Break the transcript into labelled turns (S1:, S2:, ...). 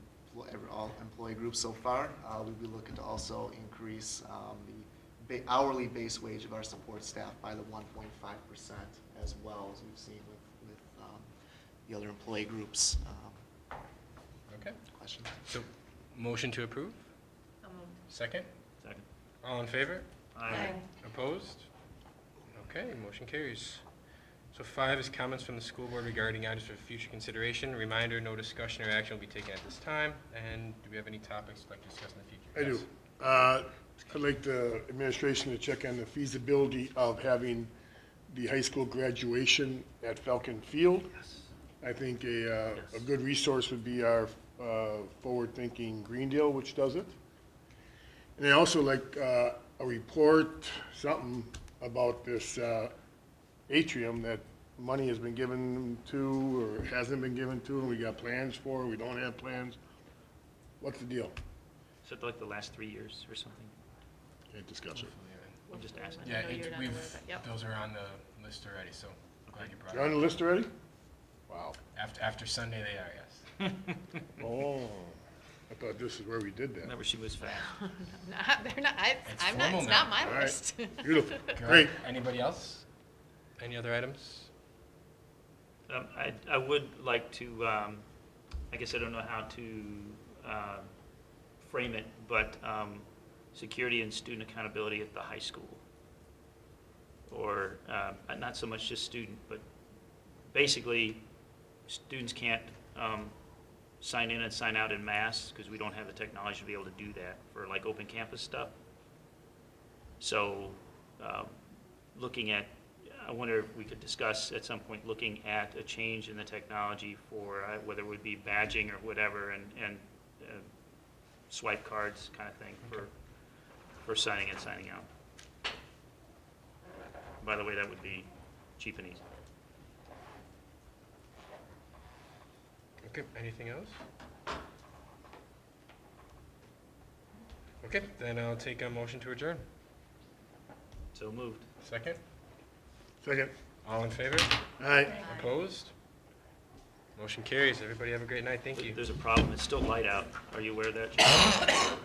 S1: employee groups so far. Uh, We'll be looking to also increase um, the ba- hourly base wage of our support staff by the 1.5% as well, as we've seen with, with um, the other employee groups. Um,
S2: Okay,
S1: Questions?
S2: so motion to approve?
S3: So moved.
S2: Second?
S4: Second.
S2: All in favor?
S4: Aye.
S2: Opposed? Okay, motion carries. So five is comments from the school board regarding items for future consideration. Reminder, no discussion or action will be taken at this time. And do we have any topics like discussed in
S5: I
S2: the future?
S5: do. Uh, I'd like the administration to check on the feasibility of having the high school graduation at Falcon Field. I think a, uh, a
S4: Yes.
S5: good resource would be our uh, forward-thinking Greendale, which does it. And I also like uh, a report, something about this uh, atrium that money has been given to or hasn't been given to, and we got plans for, we don't have plans. What's the deal?
S4: So like the last three years or something?
S5: Can't discuss it.
S4: I'm just asking.
S2: Yeah,
S3: No,
S2: it-
S3: you're not
S2: we've,
S3: aware of it. Yep.
S2: those are on the list already, so glad you brought
S5: You're on
S2: it
S5: the
S2: up.
S5: list already? Wow.
S2: After, after Sunday, they are, yes.
S5: Oh, I thought this is where we did that.
S4: Remember, she was fast.
S3: Not, they're not, I,
S2: It's
S3: I'm not,
S2: formal
S3: it's not
S2: now.
S5: All
S3: my
S5: right.
S3: list.
S5: Beautiful.
S2: Good.
S5: Great.
S2: Anybody else? Any other items?
S4: Um, I, I would like to, um, I guess I don't know how to, uh, frame it, but, um, security and student accountability at the high school. Or, uh, not so much just student, but basically, students can't, um, sign in and sign out in mass, because we don't have the technology to be able to do that for like open campus stuff. So, um, looking at, I wonder if we could discuss at some point, looking at a change in the technology for uh, whether it would be badging or whatever and, and uh, swipe cards kind of thing for, for signing and signing out. By the way, that would be cheap and easy.
S2: Okay, anything else? Okay, then I'll take a motion to adjourn.
S4: So moved.
S2: Second?
S5: Second.
S2: All in favor?
S5: All right.
S2: Opposed? Motion carries. Everybody have a great night. Thank you.
S4: There's a problem. It's still light out. Are you aware of that? Jim?